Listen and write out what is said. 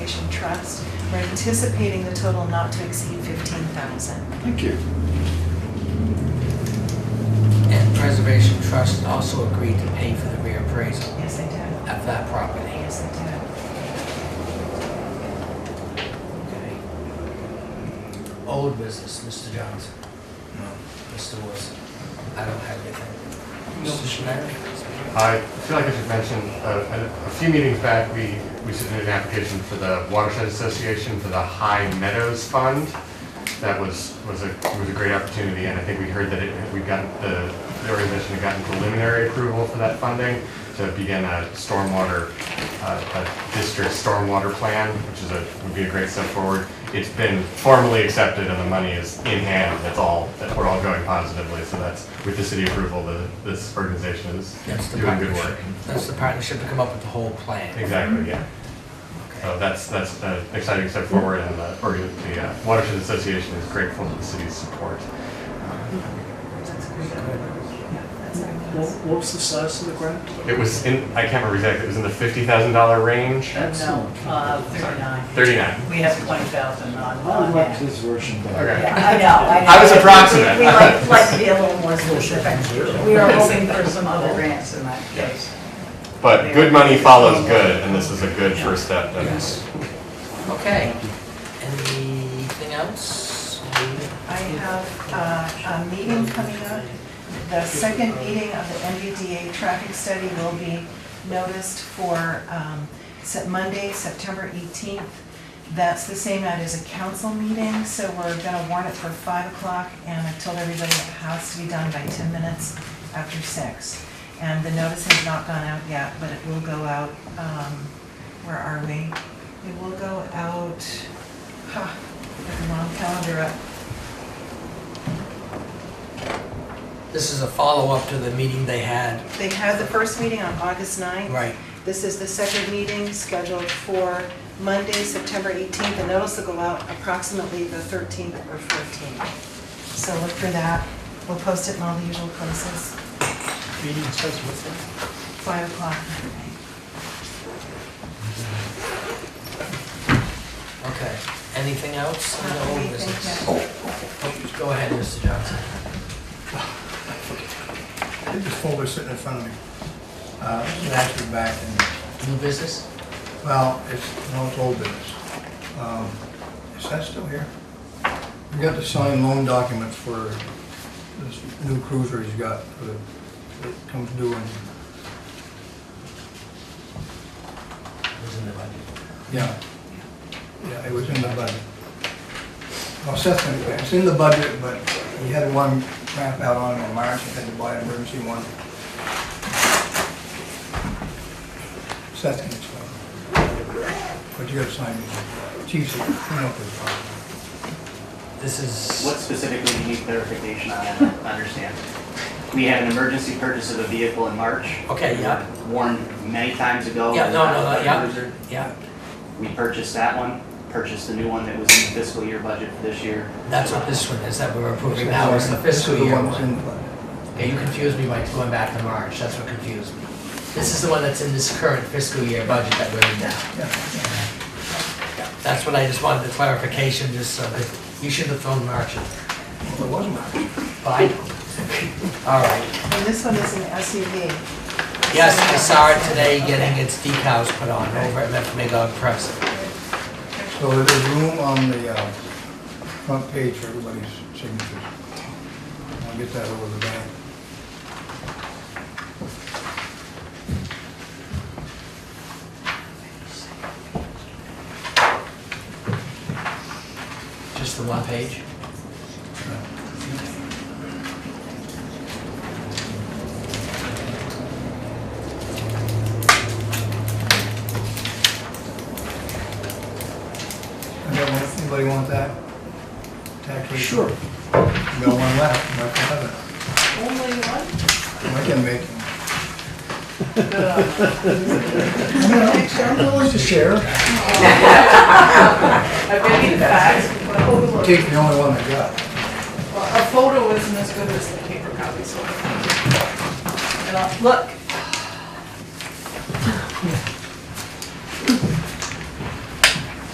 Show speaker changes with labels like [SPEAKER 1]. [SPEAKER 1] trust. We're anticipating the total not to exceed 15,000.
[SPEAKER 2] Thank you.
[SPEAKER 3] And Preservation Trust also agreed to pay for the reappraisal
[SPEAKER 1] Yes, I did.
[SPEAKER 3] of that property.
[SPEAKER 1] Yes, I did.
[SPEAKER 3] Okay. Old business, Mr. Johnson.
[SPEAKER 4] No.
[SPEAKER 3] Mr. Wilson. I don't have anything. Mr. Schmidt?
[SPEAKER 5] I feel like I should mention, uh, a a few meetings back, we we submitted an application for the Watershed Association for the High Meadows Fund. That was, was a, was a great opportunity, and I think we heard that it, we got, the the organization had gotten preliminary approval for that funding to begin a stormwater, uh, a district stormwater plan, which is a, would be a great step forward. It's been formally accepted and the money is in hand, that's all, that we're all going positively, so that's, with the city approval, the, this organization is
[SPEAKER 3] That's the
[SPEAKER 5] doing good work.
[SPEAKER 3] partnership. That's the partnership to come up with the whole plan.
[SPEAKER 5] Exactly, yeah. So that's, that's an exciting step forward, and the, org- the uh, Watershed Association is grateful to the city's support.
[SPEAKER 1] That's great. Yeah, that's our
[SPEAKER 4] What,
[SPEAKER 1] plans.
[SPEAKER 4] what was the size of the grant?
[SPEAKER 5] It was in, I can't remember exactly, it was in the fifty thousand dollar range?
[SPEAKER 6] No,
[SPEAKER 4] Excellent.
[SPEAKER 6] uh, 39.
[SPEAKER 5] Thirty-nine.
[SPEAKER 6] We have 20,000 on,
[SPEAKER 4] I
[SPEAKER 6] on
[SPEAKER 4] liked
[SPEAKER 6] that.
[SPEAKER 4] his version better.
[SPEAKER 5] Okay.
[SPEAKER 6] Yeah, I know, I know.
[SPEAKER 5] I was approximate.
[SPEAKER 6] We we like, like to be a little more specific. We are hoping for some other grants in that case.
[SPEAKER 5] But good money follows good, and this is a good first step. to-
[SPEAKER 3] Yes. Okay. Anything else?
[SPEAKER 1] I have uh, a meeting coming up. The second meeting of the MBTA traffic study will be noticed for um, Sep- Monday, September 18th. That's the same night as a council meeting, so we're going to warn it for 5 o'clock, and I told everybody it has to be done by 10 minutes after 6. And the notice has not gone out yet, but it will go out, um, where are we? It will go out, ha, got the wrong calendar up.
[SPEAKER 3] This is a follow-up to the meeting they had.
[SPEAKER 1] They had the first meeting on August 9th.
[SPEAKER 3] Right.
[SPEAKER 1] This is the second meeting scheduled for Monday, September 18th. The notice will go out approximately the 13th or 14th. So look for that. We'll post it in all the usual places,
[SPEAKER 4] Meeting starts with
[SPEAKER 1] 5 o'clock.
[SPEAKER 3] Okay. Anything else?
[SPEAKER 1] Not
[SPEAKER 3] No old
[SPEAKER 1] anything,
[SPEAKER 3] business. Oh,
[SPEAKER 1] no.
[SPEAKER 3] Go ahead, Mr. Johnson.
[SPEAKER 7] I think This folder's sitting in front of me. Uh, It has to be back in,
[SPEAKER 3] New business?
[SPEAKER 7] well, it's, no, it's old business. Um, Is that still here? We got to sign loan documents for this new cruiser he's got for the- that comes due in,
[SPEAKER 3] Was in the budget.
[SPEAKER 7] yeah. Yeah, it was in the budget. Well, Seth, anyway, it's in the budget, but he had one crap out on it in March, he had to buy an emergency one. Seth can explain. But you gotta sign these. Chief's clean up this problem.
[SPEAKER 3] This is.
[SPEAKER 8] What specifically do you need clarification on, I don't understand? We had an emergency purchase of a vehicle in March.
[SPEAKER 3] Okay, yeah.
[SPEAKER 8] Warned many times ago.
[SPEAKER 3] Yeah, no, no, no,
[SPEAKER 8] about
[SPEAKER 3] yeah.
[SPEAKER 8] the cruiser.
[SPEAKER 3] Yeah,
[SPEAKER 8] We purchased that one, purchased the new one that was in the fiscal year budget for this year.
[SPEAKER 3] that's what this one is that we're approving now, is the fiscal
[SPEAKER 7] This is the
[SPEAKER 3] year
[SPEAKER 7] one that's in
[SPEAKER 3] one.
[SPEAKER 7] the budget.
[SPEAKER 3] Okay, you confused me by going back to March, that's what confused me. This is the one that's in this current fiscal year budget that we're in now.
[SPEAKER 7] Yeah, yeah.
[SPEAKER 3] That's what I just wanted the clarification, just so that, you should have thrown March in there.
[SPEAKER 7] Well, it wasn't March.
[SPEAKER 3] Fine. All right.
[SPEAKER 1] And this one is an SUV.
[SPEAKER 3] Yes, I saw it today getting its decals put on over at Metro Press.
[SPEAKER 7] So there's room on the uh, front page for everybody's signatures. I'll get that over the bank.
[SPEAKER 3] Just the one page?
[SPEAKER 7] And then, Anybody want that? Tax rate?
[SPEAKER 4] Sure.
[SPEAKER 7] You got one left, Mark will have it.
[SPEAKER 6] Only one?
[SPEAKER 7] I can make it.
[SPEAKER 6] I've
[SPEAKER 7] I'd like to share.
[SPEAKER 6] been in fact, but a photo-
[SPEAKER 7] Take the only one I got.
[SPEAKER 6] well, a photo isn't as good as the paper copy, so I think. And I'll- Look,